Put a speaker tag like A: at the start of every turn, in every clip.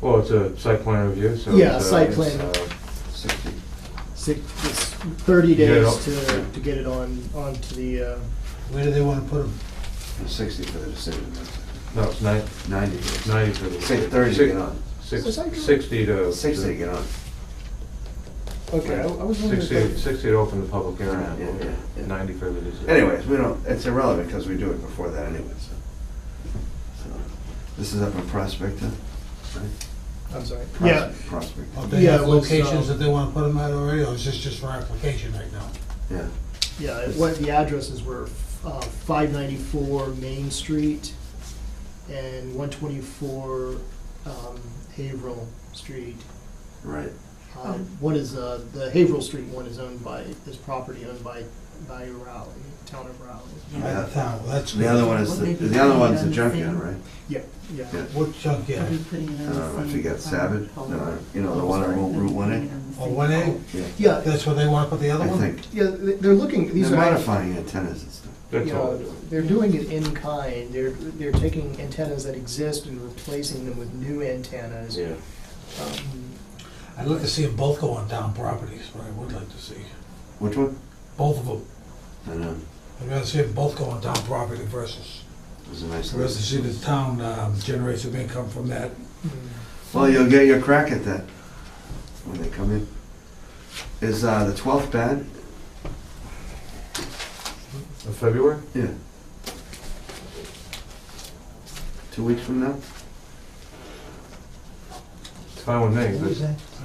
A: Well, it's a site plan review, so.
B: Yeah,
A: it's, uh,
B: site
A: it's,
B: plan.
A: uh,
C: sixty.
B: Six, it's thirty
A: You get it
B: days
A: up.
B: to, to get it on, onto the, uh,
D: Where do they want to put them?
C: And Sixty for the decision, that's it.
A: No, it's nine,
C: ninety days.
A: ninety for the.
C: Say thirty to
A: six-
C: get on,
B: Was I doing-
A: Six, sixty to.
C: sixty to get on.
B: okay, I I was wondering. if
A: Sixty,
B: that-
A: sixty to open the public hearing, I
C: Yeah, yeah,
A: believe,
C: yeah.
A: ninety for the decision.
C: Anyways, we don't, it's irrelevant because we do it before that anyway, so. So, This is up in Prospect, huh? right?
B: I'm sorry.
C: Pros-
B: Yeah,
C: Prospect,
D: Or they
B: Yeah,
D: have
B: it was,
D: locations
B: uh,
D: that they want to put them at already, or is this just for application right now?
C: yeah.
B: yeah, it- what the addresses were, uh, five ninety-four Main Street and one twenty-four, um, Haverhill Street.
C: Right.
B: Uh, One is, uh, the Haverhill Street one is owned by, is property owned by, by Rowley, town of Rowley.
D: Right
C: Yeah.
D: now, that's
C: The other
D: good.
C: one is, the the other one's the junkyard, right?
B: Yeah, yeah.
C: Yeah.
D: What junkyard?
C: Uh,
E: I
C: I forget, Savage, uh, you know, the one on Route- Route 1A?
D: Or 1A?
C: Yeah,
B: Yeah,
D: Oh, That's where they want to put the other
C: I
D: one?
C: think.
B: yeah, they- they're looking, these
C: They're
B: are.
C: modifying antennas and stuff.
A: That's
B: you
A: all.
B: know, they're doing it in kind. They're, they're taking antennas that exist and replacing them with new antennas.
A: Yeah.
B: Um,
D: I'd like to see them both go on town properties, what I would like to see.
C: Which one?
D: Both of them.
C: I know,
D: I'd rather see them both go on town property versus,
C: it was a nice
D: versus
C: list.
D: see the town um, generates some income from that.
B: hmm.
C: Well, you'll get your crack at that when they come in. Is uh, the 12th bad?
A: Of February?
C: Yeah. Two weeks from now?
A: It's fine with me,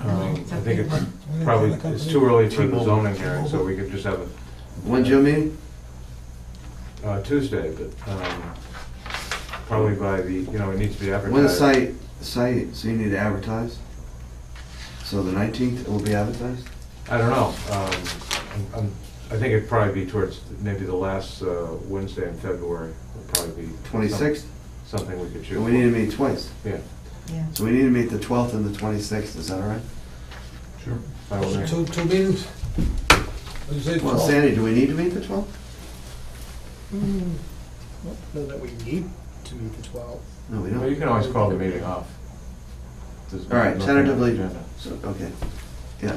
A: but, um, I think it's
D: When they
A: probably,
D: come
A: it's
D: in,
A: too early for the
D: T-Mobile.
A: zoning hearing, so we could just have it,
C: When's your meeting?
A: uh, Tuesday, but, um, probably by the, you know, it needs to be advertised.
C: When the site, site, so you need to advertise? So the 19th, it will be advertised?
A: I don't know. Um, I'm- I'm- I think it'd probably be towards maybe the last uh, Wednesday in February would probably be. some-
C: 26th?
A: Something we could shoot.
C: And we need to meet twice.
A: Yeah.
C: So we need to meet the 12th and the 26th, is that all right?
A: Sure. I will
D: So
A: make-
D: Two, two meetings? What do you say,
C: Well,
D: Paul?
C: Sandy, do we need to meet the 12th?
B: hmm, I don't know that we need to meet the 12.
C: No, we
A: Well,
C: don't.
A: You can always call the meeting off. There's
C: All right,
A: nothing on the
C: tentatively.
A: agenda.
C: So, okay, yeah.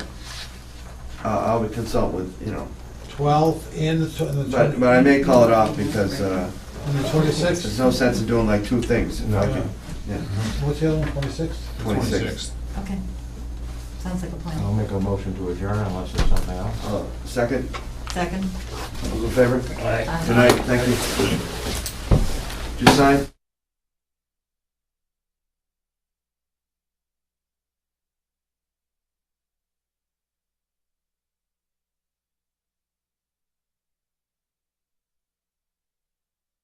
C: Uh, I'll consult with, you know,
D: 12 and the tw- and the
C: but,
D: 20
C: but I may call it off because uh,
D: and the 26th?
C: there's no sense in doing like two things.
A: No.
D: Yeah.
C: Yeah,
D: What's the other one, 26?
C: 26th.
E: Okay, sounds like a
A: I'll
E: plan.
A: make a motion to adjourn unless there's something else.
C: Uh, Second,
E: Second?
C: all in favor?
E: Aye.
C: Tonight, thank you. Did you sign?